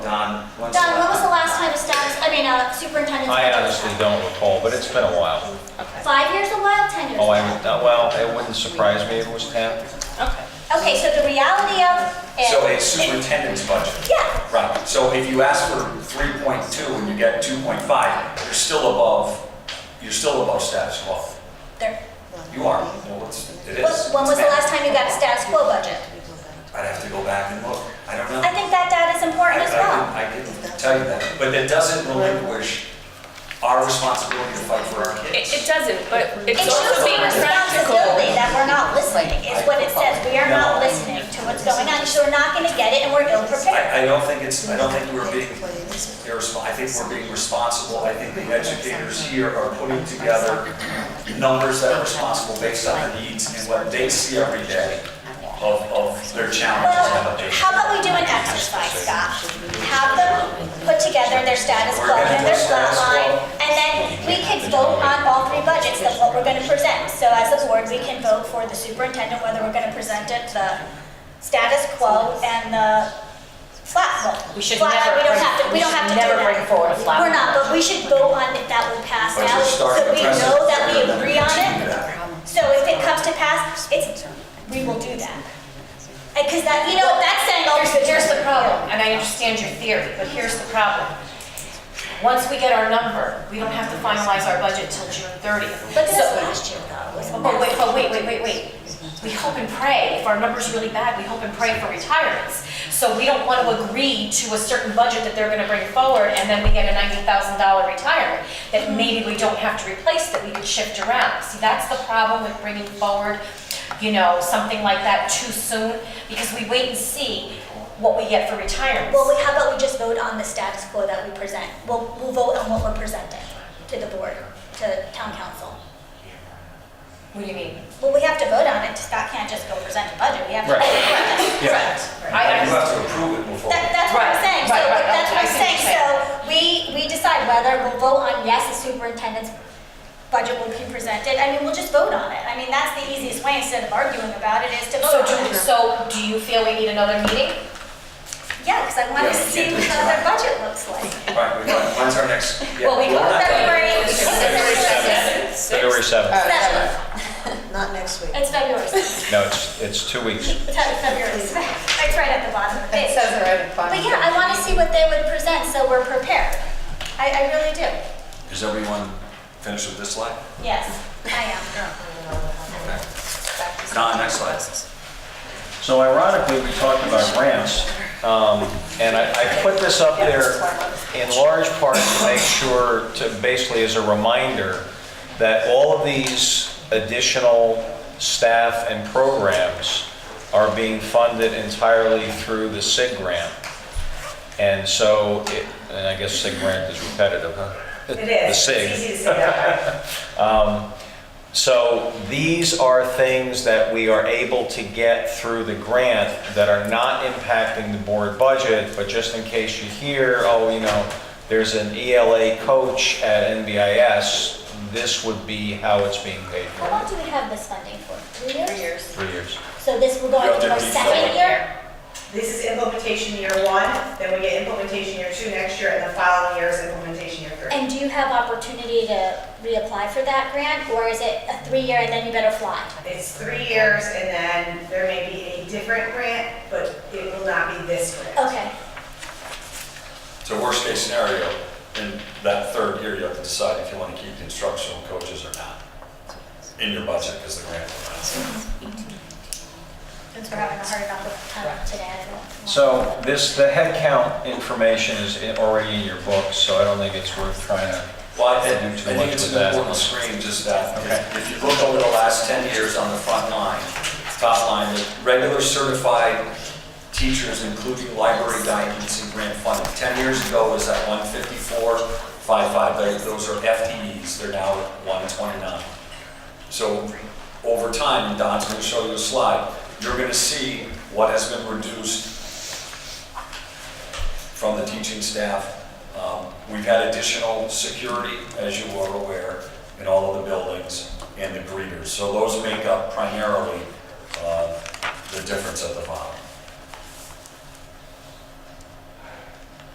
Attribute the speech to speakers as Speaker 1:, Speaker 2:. Speaker 1: John, what's
Speaker 2: Don, when was the last time a status, I mean, a superintendent's
Speaker 3: I
Speaker 2: budget was
Speaker 3: honestly
Speaker 2: done?
Speaker 3: don't recall, but it's been a while.
Speaker 4: Okay,
Speaker 2: Five years, a while, 10 years?
Speaker 3: Oh, I,
Speaker 2: a while?
Speaker 3: well, it wouldn't surprise me if it was 10.
Speaker 4: okay.
Speaker 2: Okay, so the reality of it.
Speaker 1: So it's superintendent's budget.
Speaker 2: Yeah,
Speaker 1: Right, so if you ask for 3.2 and you get 2.5, you're still above, you're still above status quo.
Speaker 2: there,
Speaker 1: You are, well, it's, it is.
Speaker 2: when when was the last time you got a status quo budget?
Speaker 1: I'd have to go back and look, I don't know.
Speaker 2: I think that data is important as well.
Speaker 1: I can I can tell you that, but that doesn't relinquish our responsibility to fight for our
Speaker 4: It,
Speaker 1: kids.
Speaker 4: it doesn't, but
Speaker 2: It
Speaker 4: it's
Speaker 2: shows
Speaker 4: also
Speaker 2: the
Speaker 4: being practical.
Speaker 2: responsibility that we're not listening, is what it says, we are not listening to what's going on, so we're not gonna get it and we're ill prepared.
Speaker 1: I, I don't think it's, I don't think we're being irresponsible, I think we're being responsible. I think the educators here are putting together numbers that are responsible based on their needs and what they see every day of, of their challenges and what
Speaker 2: Well,
Speaker 1: they.
Speaker 2: how about we do an exercise, Scott? Have them put together their status quo and their flat line, and then we can vote on all three budgets of what we're gonna present. So as a board, we can vote for the superintendent, whether we're gonna present it, the status quo and the flat one.
Speaker 4: We should
Speaker 2: Flat,
Speaker 4: never
Speaker 2: We don't
Speaker 4: bring-
Speaker 2: have to, we
Speaker 4: we
Speaker 2: don't
Speaker 4: should
Speaker 2: have to do that.
Speaker 4: never bring forward a flat
Speaker 2: We're not, but we should vote on if that will pass
Speaker 1: But
Speaker 2: now,
Speaker 1: you're
Speaker 2: so
Speaker 1: starting
Speaker 2: we
Speaker 1: a precedent.
Speaker 2: know that we agree on
Speaker 1: Continue
Speaker 2: it.
Speaker 1: that.
Speaker 2: So if it comes to pass, it's, we will do that. Because that, you know, that's saying, oh,
Speaker 5: Here's the, here's the problem, and I understand your theory, but here's the problem. Once we get our number, we don't have to finalize our budget till June 30th.
Speaker 2: But this
Speaker 5: So-
Speaker 2: last year though was a
Speaker 5: But Oh, wait,
Speaker 2: mess.
Speaker 5: but wait, wait, wait, wait. We hope and pray, if our number's really bad, we hope and pray for retirements. So we don't want to agree to a certain budget that they're going to bring forward, and then we get a $90,000 retirement that maybe we don't have to replace, that we could shift around. See, that's the problem with bringing forward, you know, something like that too soon, because we wait and see what we get for retirements.
Speaker 2: Well, we- how about we just vote on the status quo that we present? We'll, we'll vote on what we're presenting to the board, to town council.
Speaker 5: What do you mean?
Speaker 2: Well, we have to vote on it, Scott can't just go present a budget, we have to.
Speaker 5: I-
Speaker 1: You have to approve it before.
Speaker 2: That, that's what I'm
Speaker 5: Right,
Speaker 2: saying, so,
Speaker 5: right, right,
Speaker 2: that's what
Speaker 5: I
Speaker 2: I'm
Speaker 5: see what
Speaker 2: saying,
Speaker 5: you're
Speaker 2: so, we, we decide whether we'll vote on yes, the superintendent's budget will be presented, I mean, we'll just vote on it, I mean, that's the easiest way, instead of arguing about it, is to
Speaker 5: So
Speaker 2: vote on
Speaker 5: do,
Speaker 2: it.
Speaker 5: so do you feel we need another meeting?
Speaker 2: Yeah, because I want
Speaker 1: Yeah,
Speaker 2: to
Speaker 1: we
Speaker 2: see
Speaker 1: can't do
Speaker 2: what
Speaker 1: it
Speaker 2: their budget looks like.
Speaker 1: All right, we're done. when's our next? yeah,
Speaker 5: Well, we
Speaker 1: we're
Speaker 5: go
Speaker 1: not done.
Speaker 2: February, it's
Speaker 4: It's February
Speaker 2: February
Speaker 3: February 7th.
Speaker 4: 7th.
Speaker 2: seventh.
Speaker 6: Not next week.
Speaker 2: It's February 7th.
Speaker 3: No, it's, it's two weeks.
Speaker 2: It's February 7th. It's right at the bottom of the page.
Speaker 4: it right at the bottom.
Speaker 2: But yeah, I want to see what they would present, so we're prepared. I, I really do.
Speaker 1: Is everyone finished with this slide?
Speaker 2: Yes, I am.
Speaker 1: Don, next slide.
Speaker 3: So ironically, we talked about grants, um, and I, I put this up there in large part to make sure, to basically as a reminder, that all of these additional staff and programs are being funded entirely through the SIG grant. And so, it- and I guess SIG grant is repetitive, huh? It The SIG. So these are things that we are able to get through the grant that are not impacting the board budget, but just in case you hear, oh, you know, there's an ELA coach at NBIS, this would be how it's being paid
Speaker 2: How long do we have this funding for? Three years?
Speaker 3: for three years.
Speaker 2: So this will go
Speaker 1: You have
Speaker 2: into
Speaker 1: to
Speaker 2: our
Speaker 1: refill
Speaker 2: second
Speaker 1: it.
Speaker 2: year?
Speaker 7: This is implementation year one, then we get implementation year two next year, and the following year is implementation year three.
Speaker 2: And do you have opportunity to reapply for that grant, or is it a three-year and then you better fly?
Speaker 7: It's three years, and then there may be a different grant, but it will not be this grant.
Speaker 2: Okay.
Speaker 1: So worst case scenario, in that third year, you have to decide if you want to keep the instructional coaches or not in your budget because the grant will not.
Speaker 2: Since we're having a hard enough of time um, today, I don't. want-
Speaker 3: So this, the headcount information is in- already in your book, so I don't think it's worth trying to.
Speaker 1: Well, I think,
Speaker 3: Do too
Speaker 1: I
Speaker 3: much
Speaker 1: think it's
Speaker 3: with
Speaker 1: an
Speaker 3: that.
Speaker 1: important screen, just that,
Speaker 3: Okay.
Speaker 1: if you look over the last 10 years on the front line, top line, the regular certified teachers, including library guidance and grant funding, 10 years ago was at 154, 55, They- those are FTEs, they're now at 129. So over time, and Don's gonna show you a slide, you're gonna see what has been reduced from the teaching staff. Um, We've had additional security, as you are aware, in all of the buildings and the greeters. So those make up primarily uh, the difference at the bottom.